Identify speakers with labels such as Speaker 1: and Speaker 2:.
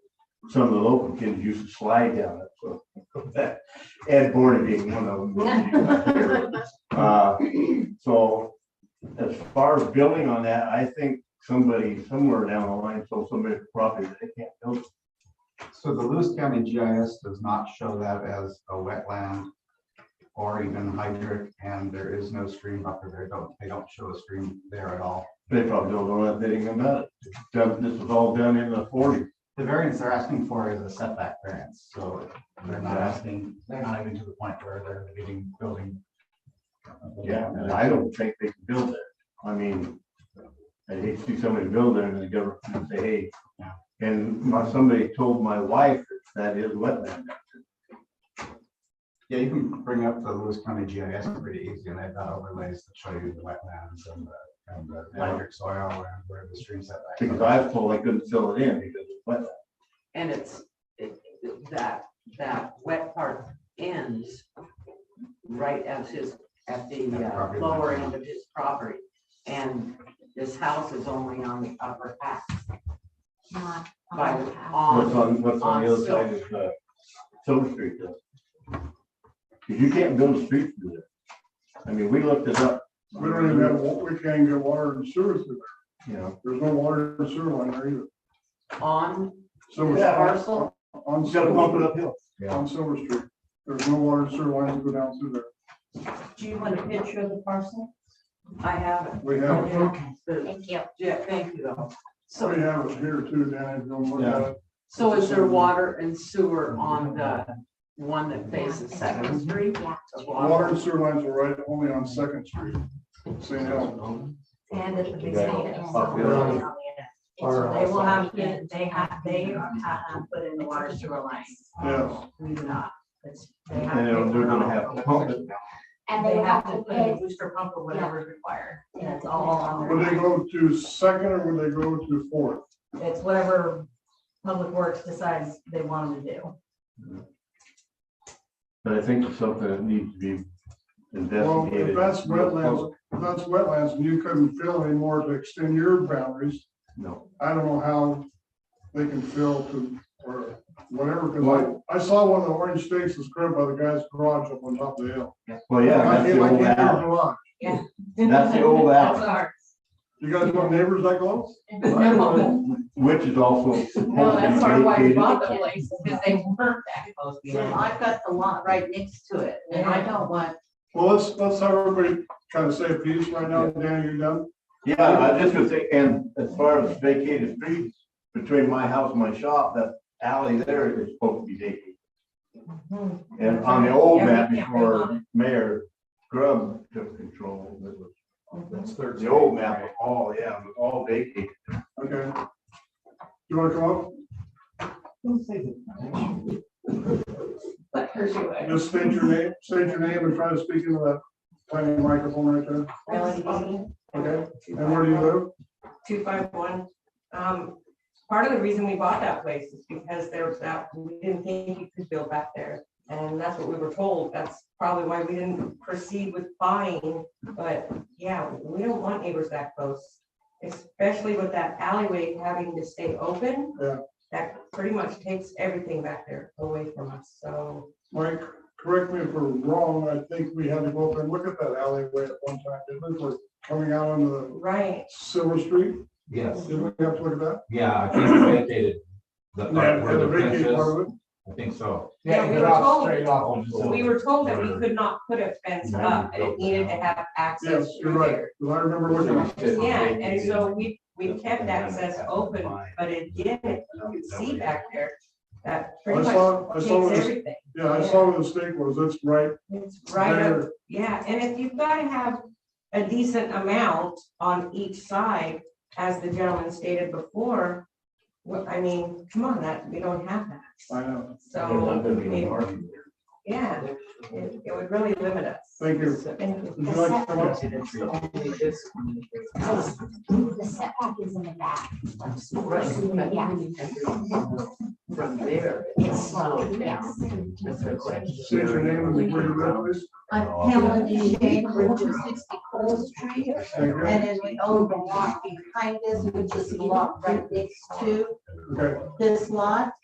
Speaker 1: some of the local kids used to slide down it, so. Ed Born being one of them. Uh, So as far as building on that, I think somebody somewhere down the line, so somebody probably, they can't build it.
Speaker 2: So the Lewis County GIS does not show that as a wetland or even hydric, and there is no stream buffer there. Don't, they don't show a stream there at all.
Speaker 1: They probably don't know anything about it. Done- This was all done in the forties.
Speaker 2: The variance they're asking for is a setback variance, so they're not asking, they're not even to the point where they're getting building.
Speaker 1: Yeah, and I don't think they can build it. I mean, I hate to see somebody build there and the government say, hey. And my, somebody told my wife that is wetland.
Speaker 2: Yeah, you can bring up the Lewis County GIS pretty easy, and they've got overlays to show you the wetlands and the, and the hydric soil and where the stream setback.
Speaker 1: Because I was told I couldn't fill it in because it's wetland.
Speaker 3: And it's, it, that, that wet part ends right at his, at the
Speaker 2: At the
Speaker 3: uh,
Speaker 2: property line.
Speaker 3: lower end of his property. And this house is only on the upper half,
Speaker 4: not
Speaker 3: by,
Speaker 4: on the path.
Speaker 1: What's
Speaker 3: on,
Speaker 1: on, what's on the other side of, uh, Silver Street though? 'Cause you can't build a street through there. I mean, we looked it up.
Speaker 5: We don't even have, wa- we can't get water and sewer through
Speaker 1: You know,
Speaker 5: there. There's no water and sewer line there either.
Speaker 3: on
Speaker 5: Silver
Speaker 3: the
Speaker 1: Yeah.
Speaker 5: Street-
Speaker 3: parcel.
Speaker 5: On
Speaker 1: you gotta pump it
Speaker 5: Silver,
Speaker 1: uphill.
Speaker 5: on Silver Street. There's no water and sewer lines that go down through there.
Speaker 3: Do you want a picture of the parcel? I have
Speaker 5: We have, it-
Speaker 3: it. The-
Speaker 4: Thank you.
Speaker 3: Yeah, thank you though.
Speaker 5: we
Speaker 3: So,
Speaker 5: have it here too, Dan, if you don't look at it.
Speaker 3: so is there water and sewer on the one that faces Second Street?
Speaker 4: Yeah.
Speaker 5: Water and sewer lines are right only on Second Street. St. Helens.
Speaker 4: And at the big
Speaker 1: Yeah.
Speaker 4: stadium, so
Speaker 1: Up
Speaker 4: they're
Speaker 1: there.
Speaker 4: really on the end. And so they will have, to- they have, they uh, put in the water sewer line.
Speaker 5: Yes.
Speaker 4: We do not. It's- they have
Speaker 1: And
Speaker 4: to-
Speaker 1: they're they're gonna have to pump it.
Speaker 4: And they have to put in a booster pump or whatever is required. And it's all on
Speaker 5: Would they
Speaker 4: their,
Speaker 5: go to Second or would they go to Fourth?
Speaker 4: it's whatever Public Works decides they want them to do.
Speaker 1: But I think it's something that needs to be
Speaker 5: Well, if
Speaker 1: investigated.
Speaker 5: that's wetlands, if that's wetlands and you couldn't fill anymore to extend your boundaries,
Speaker 1: No.
Speaker 5: I don't know how they can fill to, or whatever, because I, I saw one of the orange stakes was grabbed by the guy's garage up on top of the hill.
Speaker 1: Well, yeah,
Speaker 5: I
Speaker 1: that's the
Speaker 5: came- I came
Speaker 1: old
Speaker 5: to your
Speaker 1: alley.
Speaker 5: garage.
Speaker 1: That's the old
Speaker 4: That's
Speaker 1: alley.
Speaker 4: ours.
Speaker 5: You guys want neighbors that close?
Speaker 4: No,
Speaker 1: Which is also.
Speaker 4: no, that's part of why we
Speaker 1: vacated.
Speaker 4: bought the place, because they weren't that close.
Speaker 3: So I've got the lot right next to it and I don't want,
Speaker 5: Well, let's, let's have everybody kind of say a piece right now, Dan, you done?
Speaker 1: Yeah, I was just gonna say, and as far as vacated streets, between my house and my shop, that alley there is supposed to be vacated.
Speaker 4: Mhm.
Speaker 1: And on the old
Speaker 4: Yeah, we
Speaker 1: map
Speaker 4: can't build on
Speaker 1: before Mayor Grubb took control, it was
Speaker 2: That's third.
Speaker 1: the old map, was all, yeah, it was all vacated.
Speaker 5: Okay. You wanna come up?
Speaker 3: let her do it.
Speaker 5: Just state your name, state your name and try to speak into that tiny microphone right there. Okay, and where do you live?
Speaker 6: two five one. Um, part of the reason we bought that place is because there was that, we didn't think you could build back there. And that's what we were told. That's probably why we didn't proceed with buying, but yeah, we don't want neighbors that close. Especially with that alleyway having to stay open.
Speaker 5: Yeah.
Speaker 6: That pretty much takes everything back there away from us, so.
Speaker 5: Mike, correct me if we're wrong, I think we had to go up and look at that alleyway at one time, didn't we? We're Coming out on the
Speaker 6: Right,
Speaker 5: Silver Street,
Speaker 7: Yes,
Speaker 5: did we have to look at that?
Speaker 7: yeah, I think we vacated the
Speaker 5: Yeah,
Speaker 7: part where the
Speaker 5: the vacate
Speaker 7: bench is.
Speaker 5: part of it.
Speaker 7: I think so.
Speaker 6: Yeah, we were told-
Speaker 7: Straight off.
Speaker 6: we were told that we could not put a fence up, and it needed to have access
Speaker 5: Yes, you're
Speaker 6: through
Speaker 5: right,
Speaker 6: there.
Speaker 5: 'cause I remember looking at it.
Speaker 6: Yeah, and so we, we kept access open, but again, if you could see back there, that
Speaker 5: I
Speaker 6: pretty much
Speaker 5: saw, I
Speaker 6: takes
Speaker 5: saw, what the-
Speaker 6: everything.
Speaker 5: yeah, I saw where the stake was, it's right
Speaker 6: It's right up,
Speaker 5: there.
Speaker 6: yeah, and if you've got to have a decent amount on each side, as the gentleman stated before, well, I mean, come on, that, we don't have that,
Speaker 5: I know,
Speaker 6: so, yeah, it, it would really limit us.
Speaker 5: thank you.
Speaker 6: Thank you.
Speaker 5: Would you like to come up?
Speaker 8: The setback is in the back. Yeah.
Speaker 3: From there.
Speaker 8: It's slow, yeah.
Speaker 5: State your name and where you live, please.
Speaker 8: I'm
Speaker 1: Oh,
Speaker 8: Pamela Duchesne, we're just sixty Cole Street,
Speaker 5: Thank you.
Speaker 8: and then we own the lot behind this, which is the lot right next to
Speaker 5: Okay.
Speaker 8: this lot.